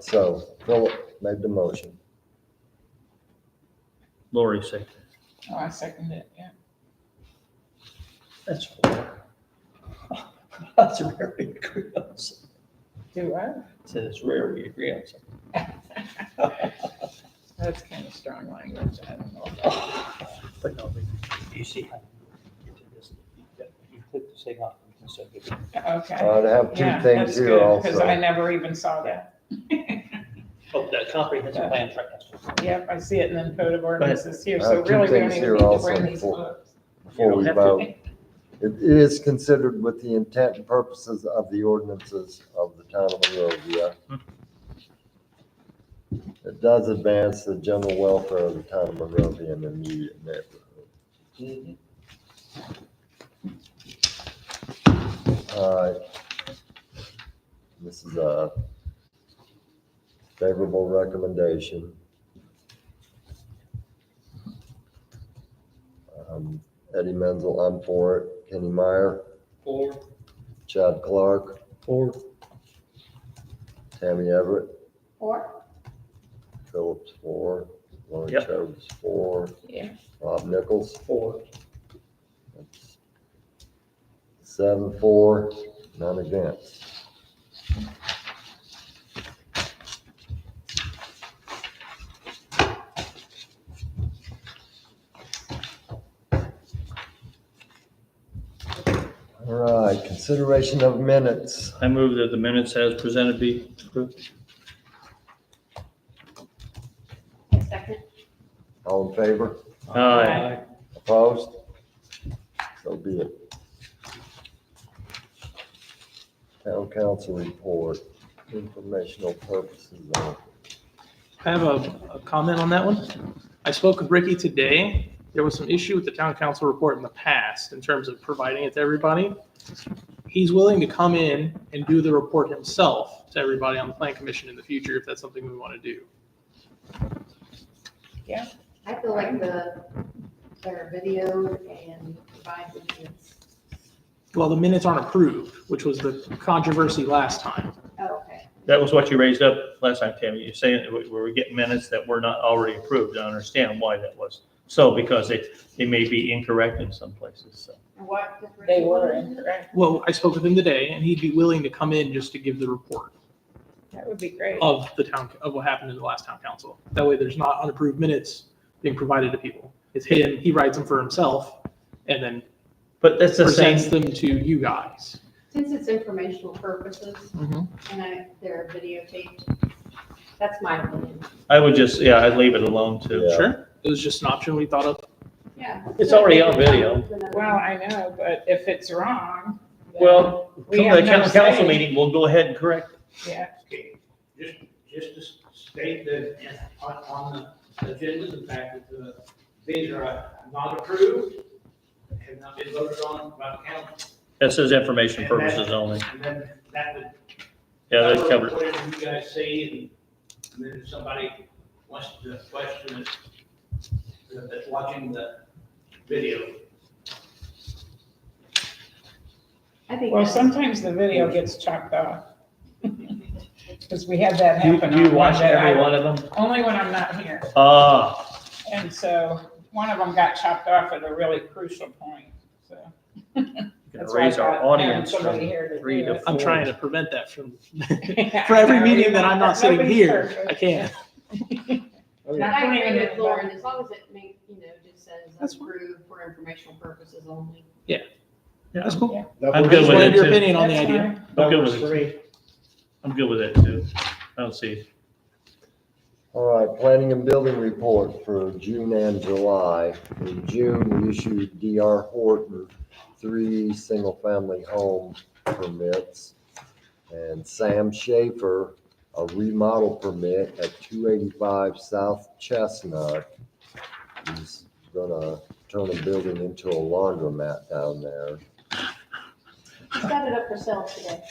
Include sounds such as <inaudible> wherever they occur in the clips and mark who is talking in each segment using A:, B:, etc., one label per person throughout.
A: So Philip made the motion.
B: Lori seconded.
C: Oh, I second it, yeah.
D: That's rare. <laughs> That's rare we agree on something.
C: Do I?
D: Said it's rare we agree on something.
C: That's kind of strong language, I don't know.
D: <laughs> But no, but you see how you did this, you got- you click this thing off and you can still give it.
C: Okay.
A: I have
C: Yeah,
A: two Uh, things
C: that's
A: here
C: good, Because I
A: also.
C: never even saw that.
D: Oh, that comprehensive plan track.
C: Yep, I see it in the code of ordinances here,
A: I
C: so
A: have two
C: really we don't
A: Uh, things here
C: even need to
A: also
C: bring these
A: for-
C: books.
A: Before
B: You
A: we
B: don't have to.
C: <laughs>
A: vote, it is considered with the intent and purposes of the ordinances of the town of Monrovia. It does advance the general welfare of the town of Monrovia and the immediate neighborhood.
D: Mm-hmm.
A: Alright. Uh, This is a favorable recommendation. Um, Eddie Menzel, I'm for it. Kenny Meyer,
D: Four.
A: Chad Clark,
B: Four.
A: Tammy Everett,
C: Or?
A: Phillips, four, Lori
B: Yep.
A: Chodes, four,
C: Yeah.
A: Bob Nichols,
D: Four.
A: that's seven, four, none against. All right, consideration of minutes.
B: I move that the minutes as presented be approved.
E: Second.
A: All in favor?
B: Aye.
A: Opposed? So be it. Town council report, informational purposes only.
F: I have a, a comment on that one. I spoke with Ricky today. There was some issue with the town council report in the past in terms of providing it to everybody. He's willing to come in and do the report himself to everybody on the plan commission in the future if that's something we want to do.
E: I feel like the, their video and provide the kids.
F: Well, the minutes aren't approved, which was the controversy last time.
E: Oh, okay.
B: That was what you raised up last time, Tammy. You're saying that we were getting minutes that were not already approved. I understand why that was. So because they, they may be incorrect in some places, so.
E: And what? did
C: They
E: Ricky
C: were
E: do?
C: incorrect.
F: Well, I spoke with him today and he'd be willing to come in just to give the report
C: That would be great.
F: of the town, of what happened in the last town council. That way there's not unapproved minutes being provided to people. It's him, he writes them for himself and then
B: But that's the
F: presents
B: same,
F: them to you guys.
E: Since it's informational purposes
B: Mm-hmm.
E: and I, they're videotaped, that's my opinion.
B: I would just, yeah, I'd leave it alone too.
A: Yeah.
F: Sure. It was just an option we thought of.
E: Yeah.
B: It's already on video.
C: Well, I know, but if it's wrong. then
B: Well,
C: we
B: Come
C: have
B: to the
C: no
B: coun- council
C: say.
B: meeting, we'll go ahead and correct. it.
C: Yeah,
G: Okay, just, just to state that on, on the agenda, the fact that the, these are not approved, have not been voted on by the council.
B: That says information purposes only.
G: And then that would.
B: Yeah, that covers.
G: Whatever you guys see, and then if somebody wants to question it, that- that's watching the video.
E: I think.
C: well,
E: that's-
C: sometimes the video gets chopped off. <laughs> Because we had that
B: You,
C: happen.
B: you
C: on
B: watch
C: that I-
B: every one of them?
C: Only when I'm not here.
B: Ah,
C: And so one of them got chopped off at a really crucial point, so.
B: gonna
C: that's why I
B: raise our
C: thought having
B: audience from
C: somebody here to
B: three
C: do
B: to
C: it.
F: I'm
B: Four.
F: trying to prevent that from, <laughs>
C: Yeah,
F: for every
C: no,
F: meeting that I'm not sitting
C: nobody's
F: here,
C: perfect.
F: I can't.
E: But I agree with Lauren, as long as it make, you know, just says
F: That's fine.
E: approved for informational purposes only.
F: That's cool.
B: I'm
F: I
B: good
F: just
B: with
F: wanted
B: it
F: your
B: too.
F: opinion on the
C: That's
F: idea.
C: fine.
B: I'm good with it. I'm good with it too. I don't see.
A: All right, planning and building report for June and July. In June, we issued DR Horton three single-family home permits. And Sam Schaefer, a remodel permit at two eighty-five South Chestnut. He's gonna turn a building into a laundromat down there.
E: He's got it up for sale today.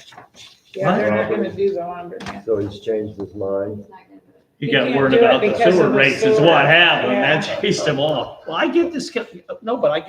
C: Yeah, they're not gonna do the laundry.
A: So he's changed his mind.
E: He's not gonna do it.
B: You
C: You
B: got
C: can't
B: worried
C: do it
B: about the
C: because
B: sewer
C: of the
B: rates is
C: sewer.
B: what happened.
C: Yeah.
B: That chased them off. Well, I get this, no, but I get